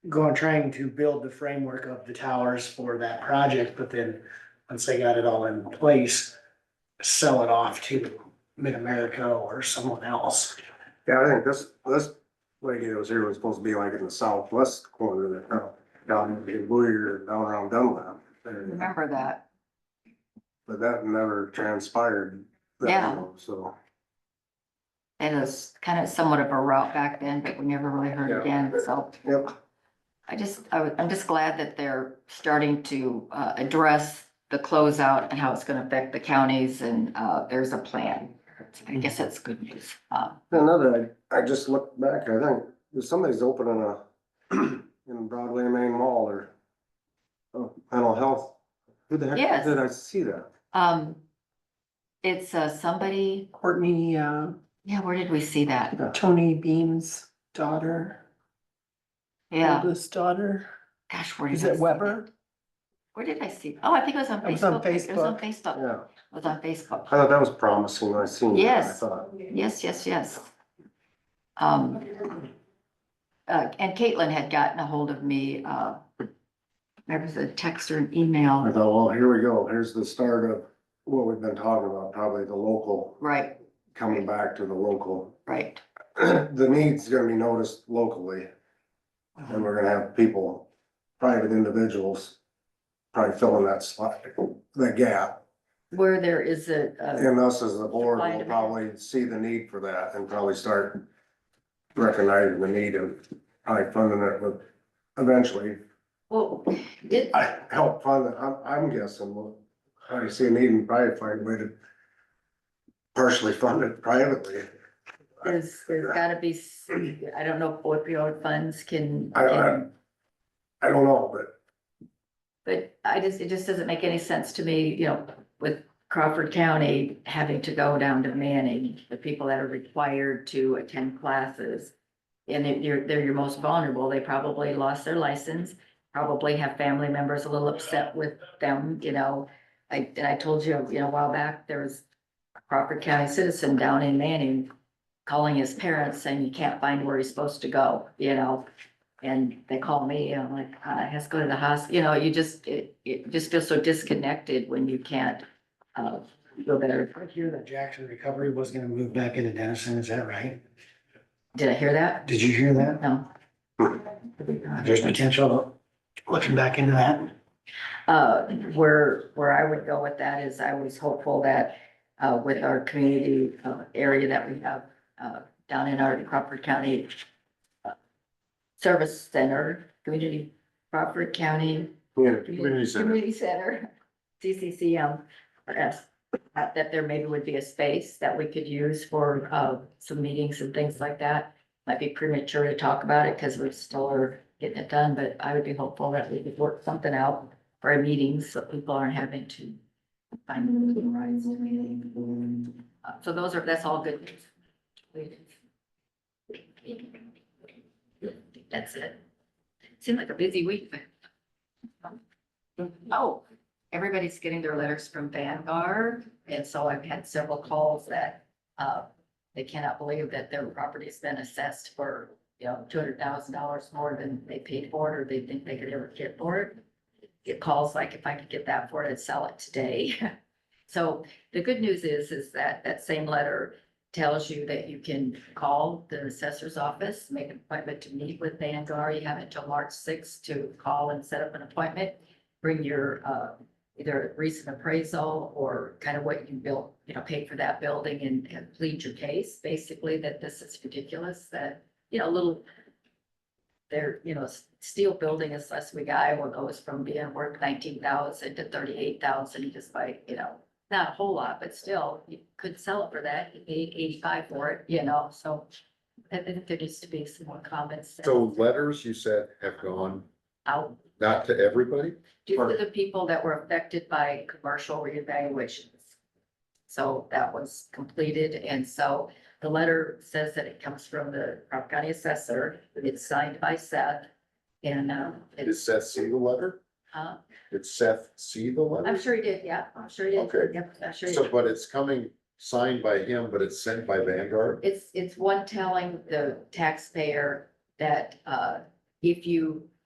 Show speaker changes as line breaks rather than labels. going, trying to build the framework of the towers for that project, but then once they got it all in place, sell it off to Mid-America or someone else.
Yeah, I think this, this lady that was here was supposed to be like in the southwest corner of the town, down in Boyer, down around Dunlap. area.
remember that.
But that never transpired. that
Yeah.
long, So,
It was kind of somewhat of a route back then, but we never really
Yeah.
heard again, so.
yep,
I just, I, am just glad that they're starting to, uh, address the closeout and how it's gonna affect the counties and, uh, there's a plan. I guess that's good news. Uh,
another, I, I just looked back, I think, there's somebody's opening a, in Broadway Main Mall or a mental health. Who the heck
Yes.
did I see that?
um, it's, uh, somebody,
Courtney, uh,
yeah, where did we see that?
Tony Beam's daughter,
Yeah,
oldest daughter.
gosh, where did I
Is
see
it
that?
Weber?
Where did I see? Oh, I think it was on
It was on
Facebook. It was on
Facebook.
Facebook.
Yeah,
It was on
I
Facebook.
thought that was promising, I seen. that, I
Yes.
thought.
Yes, yes, yes. Um, uh, and Caitlin had gotten a hold of me, uh, there was a text or an
I
email,
thought, well, here we go, here's the start of what we've been talking about, probably the local,
right,
coming back to the local.
right,
The need's gonna be noticed locally, and we're gonna have people, private individuals, probably filling that slot, the gap.
where there is a, a,
And us as the board
Supply and
will
demand.
probably see the need for that and probably start recognizing the need and probably funding it with, eventually,
well, it,
I help fund it, I'm, I'm guessing, well, I see a need and probably find a way to partially fund it privately.
there's, there's gotta be, s- I don't know if opioid funds can,
I- I-
can-
I don't know, but
but I just, it just doesn't make any sense to me, you know, with Crawford County having to go down to Manning, the people that are required to attend classes. And they're- you're, they're your most vulnerable, they probably lost their license, probably have family members a little upset with them, you know. I, and I told you, you know, a while back, there was a Crawford County citizen down in Manning calling his parents saying he can't find where he's supposed to go, you know? And they call me, and I'm like, "Uh, I has to go to the hospital, you know, you just, it, it just feels so disconnected when you can't, uh, feel better.
I hear that Jackson Recovery was gonna move back into Denison, is that right?
Did I hear that?
Did you hear that?
No.
There's potential looking back into that.
Uh, where, where I would go with that is I was hopeful that, uh, with our community, uh, area that we have, uh, down in our Crawford County uh, Service Center, Community, Crawford County
community, community center,
Community Center, CCCM, or S, uh, that there maybe would be a space that we could use for, uh, some meetings and things like that. Might be premature to talk about it because we're still are getting it done, but I would be hopeful that we could work something out for our meetings so people aren't having to find the rights to meeting. Uh, So those are, that's all good news. That's it. Seemed like a busy week, but Oh, everybody's getting their letters from Vanguard, and so I've had several calls that, uh, they cannot believe that their property's been assessed for, you know, two hundred thousand dollars more than they paid for it, or they think they could ever get for it. Get calls like, if I could get that for it, I'd sell it today. So the good news is, is that that same letter tells you that you can call the assessor's office, make an appointment to meet with Vanguard. You have until March sixth to call and set up an appointment bring your, uh, either recent appraisal or kind of what you built, you know, paid for that building and, and plead your case, basically, that this is ridiculous, that, you know, little, they're, you know, s- steel building is less we got, well, goes from being worth nineteen thousand to thirty-eight thousand, just by, you know, not a whole lot, but still, you could sell it for that, you paid eighty-five for it, you know, so I think there needs to be some more comments
So letters you said have gone,
out
not to everybody?
due to the people that were affected by commercial reevaluations. So that was completed, and so the letter says that it comes from the Crawford County Assessor, it's signed by Seth. And, um,
Did
it's,
Seth see the letter?
uh,
Did Seth see the
I'm
letter?
sure he did, yeah, I'm sure he did.
Okay.
Yep, I'm sure he
So,
did.
but it's coming signed by him, but it's sent by Vanguard?
It's, it's one telling the taxpayer that, uh, if you